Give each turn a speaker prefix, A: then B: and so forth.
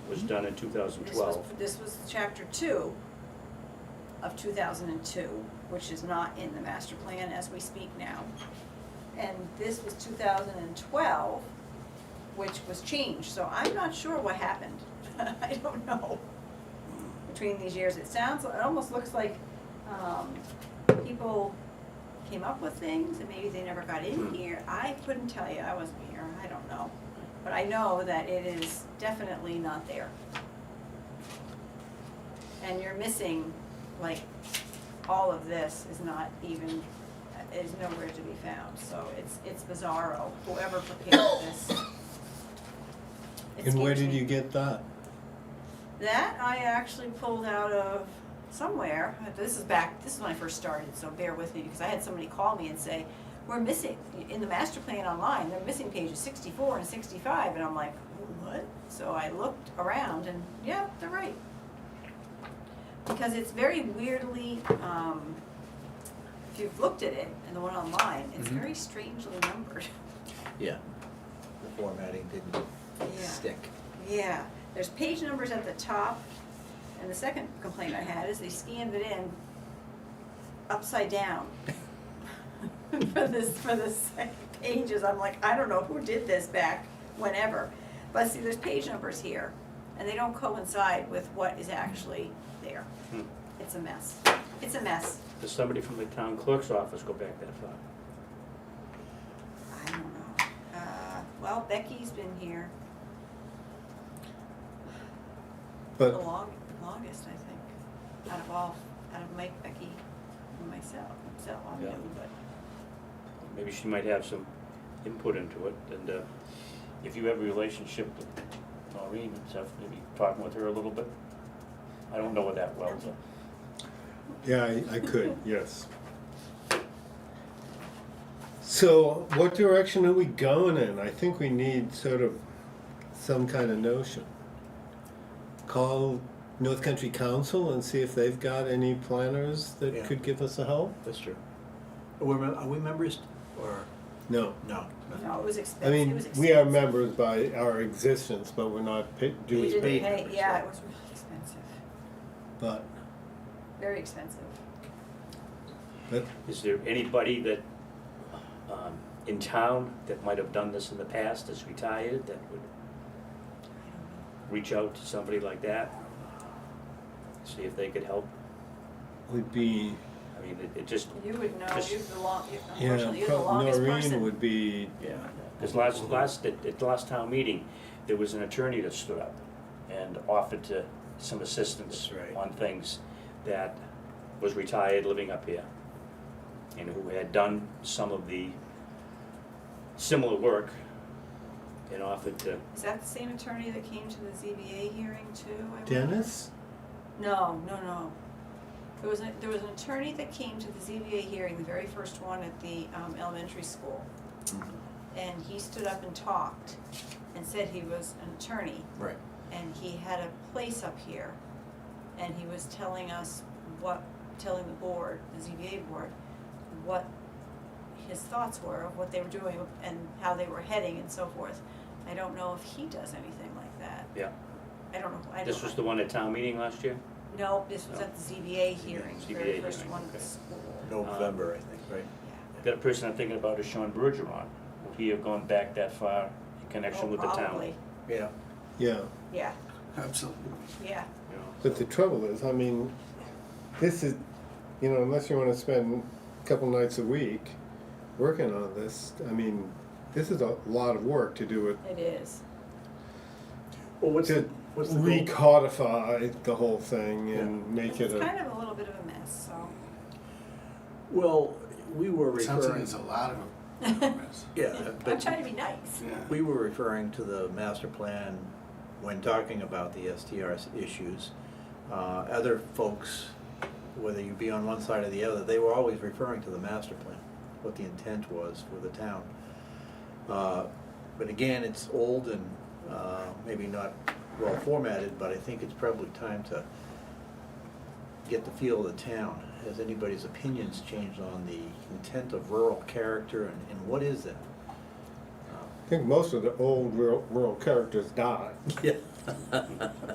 A: was done in two thousand
B: This was,
A: twelve.
B: this was chapter two of two thousand and two, which is not in the master plan as we speak now. And this was two thousand and twelve, which was changed, so I'm not sure what happened. I don't know. Between these years, it sounds, it almost looks like, um, people came up with things and maybe they never got
A: Hmm.
B: in here. I couldn't tell you, I wasn't here, I don't know. But I know that it is definitely not there and you're missing, like, all of this is not even, is nowhere to be found, so it's, it's bizarro, whoever prepared this. It
C: And where
B: scares
C: did
B: me.
C: you get that?
B: That I actually pulled out of somewhere, this is back, this is when I first started, so bear with me, because I had somebody call me and say, we're missing, in the master plan online, they're missing pages sixty-four and sixty-five, and I'm like, what? So I looked around and, yeah, they're right. Because it's very weirdly, um, if you've looked at it, and the one online, it's
C: Mhm.
B: very strangely numbered.
C: Yeah.
D: The formatting didn't
B: Yeah.
D: stick.
B: Yeah, there's page numbers at the top, and the second complaint I had is they scanned it in upside down. For this, for the second pages, I'm like, I don't know who did this back whenever. But see, there's page numbers here, and they don't coincide with what is actually there.
A: Hmm.
B: It's a mess. It's a mess.
A: Does somebody from the town clerk's office go back that far?
B: I don't know. Uh, well, Becky's been here the
C: But
B: long, longest, I think, out of all, out of Mike, Becky, and myself, so I'm
A: Yeah.
B: new, but.
A: Maybe she might have some input into it, and, uh, if you have a relationship with Maureen and stuff, maybe talking with her a little bit. I don't know her that well, so.
C: yeah, I, I could, yes. So what direction are we going in? I think we need sort of some kind of notion. Call North Country Council and see if they've got any planners
D: Yeah.
C: that could give us a help?
D: That's true. Are we, mem- are we members or,
C: No.
D: no?
B: No, it was
C: I
B: expensive, it
C: mean,
B: was expensive.
C: we are members by our existence, but we're not pa-
B: We
C: dues
B: didn't
C: paid,
B: pay-
D: members,
B: Yeah,
D: right?
B: it was really expensive,
C: but
B: very expensive.
C: that,
A: Is there anybody that, um, in town that might have done this in the past, that's retired, that would
B: I don't
A: reach out to somebody like that? See if they could help?
C: would be
A: I mean, it, it just,
B: know. You would know,
A: Just-
B: you're the long, you-
C: Yeah,
B: unfortunately, you're the
C: prob-
B: longest
C: Noreen
B: person.
C: would be,
D: Yeah.
A: Because last, last, at, at the last town meeting, there was an attorney that stood up and offered to, some assistance
D: That's right.
A: on things that was retired, living up here, and who had done some of the similar work and offered to,
B: Is that the same attorney that came to the ZBA hearing too? I wonder?
C: Dennis?
B: No, no, no. There was, a- there was an attorney that came to the ZBA hearing, the very first one at the um, elementary school.
D: Mm-hmm.
B: And he stood up and talked and said he was an attorney
D: Right.
B: and he had a place up here. And he was telling us what, telling the board, the ZBA board, what his thoughts were of what they were doing and how they were heading and so forth. I don't know if he does anything like that.
A: yeah.
B: I don't know, I don't.
A: This was the one at town meeting last year?
B: No, this was
A: No.
B: at the ZBA hearing, the very
A: ZBA
B: first
A: hearing,
B: one at
A: okay.
B: the school.
D: Um, November, I think, right?
B: Yeah.
A: The other person I'm thinking about is Sean Bergeron. Would he have gone back that far in
B: Oh,
A: connection with the town?
B: Probably,
D: Yeah.
C: Yeah,
B: yeah,
D: Absolutely.
B: yeah.
A: you know?
C: but the trouble is, I mean, this is, you know, unless you wanna spend a couple nights a week working on this, I mean, this is a lot of work to do it,
B: It is.
D: Well, what's
C: to
D: the, what's the goal?
C: recodify the whole thing and make
B: It's
C: it a,
B: kind of a little bit of a mess, so.
D: Well, we were
E: Sounds like
D: referring,
E: it's a lot of them.
D: yeah,
B: I'm
D: but
B: trying to be nice.
E: Yeah.
D: we were referring to the master plan when talking about the STRs issues. Uh, other folks, whether you be on one side or the other, they were always referring to the master plan, what the intent was for the town. Uh, But again, it's old and uh, maybe not well formatted, but I think it's probably time to get the feel of the town. Has anybody's opinions changed on the intent of rural character and, and what is that?
C: I think most of the old rural, rural characters died.
D: Yeah.